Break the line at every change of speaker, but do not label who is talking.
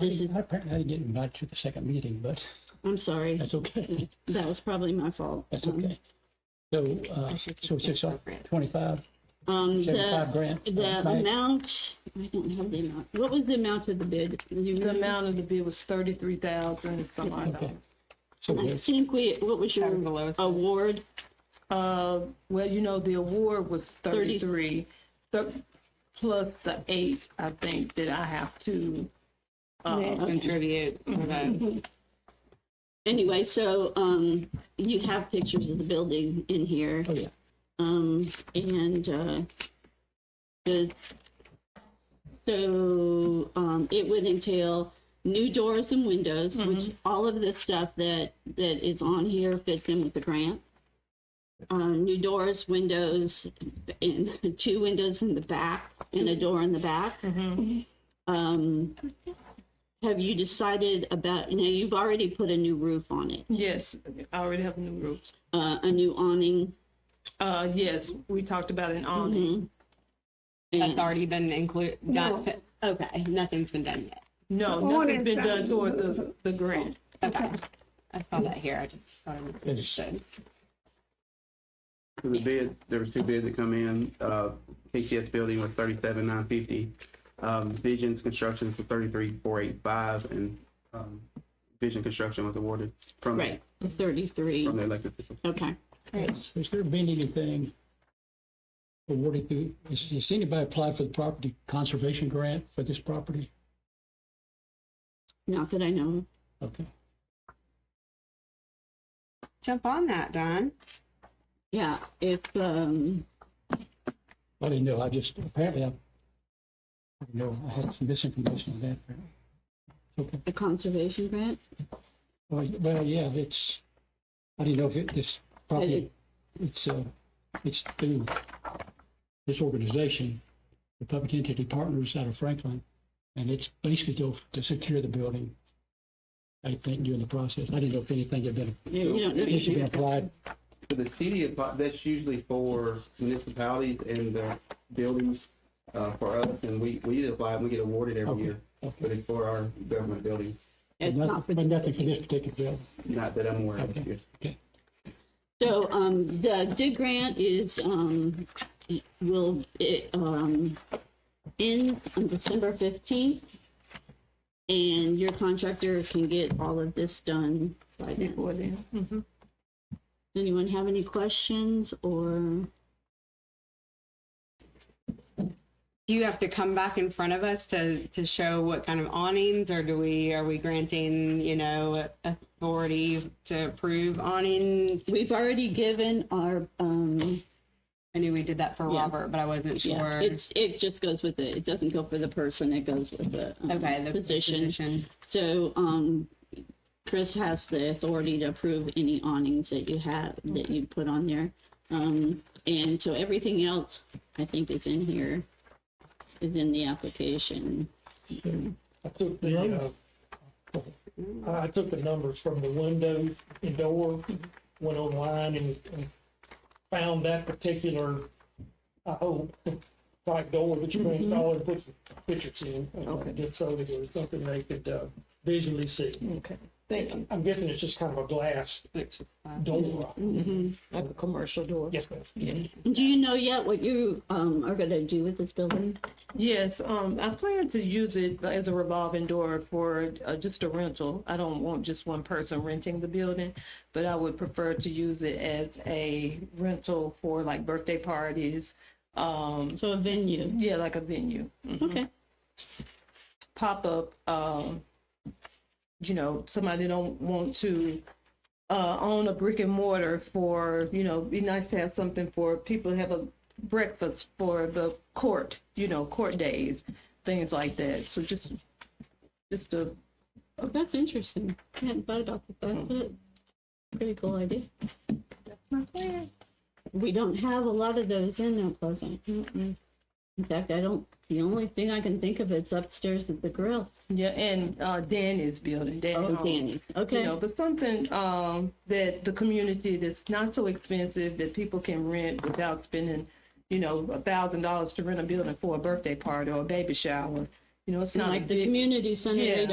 Is it-
I apparently I didn't get invited to the second meeting, but
I'm sorry.
that's okay.
That was probably my fault.
That's
Um,
okay. So, uh,
I should
so it's
keep
just
it
like
appropriate.
twenty-five,
Um,
seventy-five
the,
grants.
the
right?
amount, I don't have the amount. What was the amount of the bid? Do you
The
remember?
amount of the bid was thirty-three thousand and some odd
Okay.
dollars.
So uh,
I
there's,
think we, what was your
Kind of below.
award?
Uh, well, you know, the award was
Thirty-
thirty-three, th- plus the eight, I think, that I have to, uh,
contribute for that.
Anyway, so, um, you have pictures of the building in here.
oh, yeah.
Um, and, uh, does, so, um, it would entail new doors and windows, which all of this stuff that, that is on here fits in with the grant. Um, new doors, windows, and two windows in the back and a door in the back. Um, have you decided about, you know, you've already put a new roof on it,
yes, I already have a new roof.
uh, a new awning.
Uh, yes, we talked about an awning.
That's
and-
already been included, not,
No.
okay, nothing's been done yet.
No,
The
nothing's been done
awning's
toward the, the grant.
Okay. I saw that here, I just thought I
It's-
misunderstood.
So The bid, there was two bids that come in. Uh, KCS Building was thirty-seven nine fifty. Um, Vision's Construction for thirty-three four eight five and, um, Vision Construction was awarded from,
Right,
the-
thirty-three,
from the elected officials.
okay.
Has has there been anything awarded through, has, has anybody applied for the property conservation grant for this property?
Not that I know of.
Okay.
Jump on that, Don.
Yeah, if, um,
I didn't know, I just, apparently I, I didn't know, I had some misinformation on that. apparently. Okay,
a conservation grant,
well, y- well, yeah, it's, I didn't know if it, this property, it's, uh, it's through this organization, the Public Entity Partners out of Franklin, and it's basically to, to secure the building, I think, during the process. I didn't know if anything had been,
you you don't know.
it should be
anything about
applied,
So the city, appli- that's usually for municipalities and the buildings, uh, for us, and we, we apply, and we get awarded every
Okay.
year. But
okay,
it's for our government buildings,
It's
but
not for
nothing but nothing for this particular building.
not that I'm aware of.
Okay.
yes.
So, um, the dig grant is, um, will, it, um, ends on December fifteenth. And your contractor can get all of this done by then.
Before then. Mhm.
Anyone have any questions or?
Do you have to come back in front of us to, to show what kind of awnings, or do we, are we granting, you know, authority to approve awning?
We've already given our, um,
I knew we did that for
Yeah.
Robert, but I wasn't
yeah,
sure.
it's, it just goes with it. It doesn't go for the person, it goes with the um,
Okay, the
position.
position.
So, um, Chris has the authority to approve any awnings that you have, that you put on there. Um, and so everything else, I think is in here, is in the application.
I took the, uh, I took the numbers from the windows and door, went online and, and found that particular, I hope, like door that you can install and put some pictures in. uh,
Okay.
Just so that there was something they could uh, visually see.
Okay, thank you.
I'm guessing it's just kind of a glass
Which is fine.
door.
Like a commercial door.
Yes, ma'am.
Do you know yet what you, um, are gonna do with this building?
Yes, um, I plan to use it as a revolving door for uh, just a rental. I don't want just one person renting the building, but I would prefer to use it as a rental for like birthday parties. Um,
So a venue,
yeah, like a venue,
okay.
pop up. Um, you know, somebody don't want to uh, own a brick and mortar for. You know, be nice to have something for people to have a breakfast for the court. You know, court days, things like that. So just, just a
Oh, that's interesting. I hadn't thought about that. That's
Hmm.
a pretty cool idea. That's my plan. We don't have a lot of those in Mount Pleasant. In fact, I don't, the only thing I can think of is upstairs at the grill.
Yeah, and uh, Danny's building, Danny
Oh,
Homes.
Danny's,
You know,
okay.
but something um, that the community that's not so expensive that people can rent without spending, you know, a thousand dollars to rent a building for a birthday party or a baby shower. You know, it's not a
Like the
big-
community center, they
Yeah.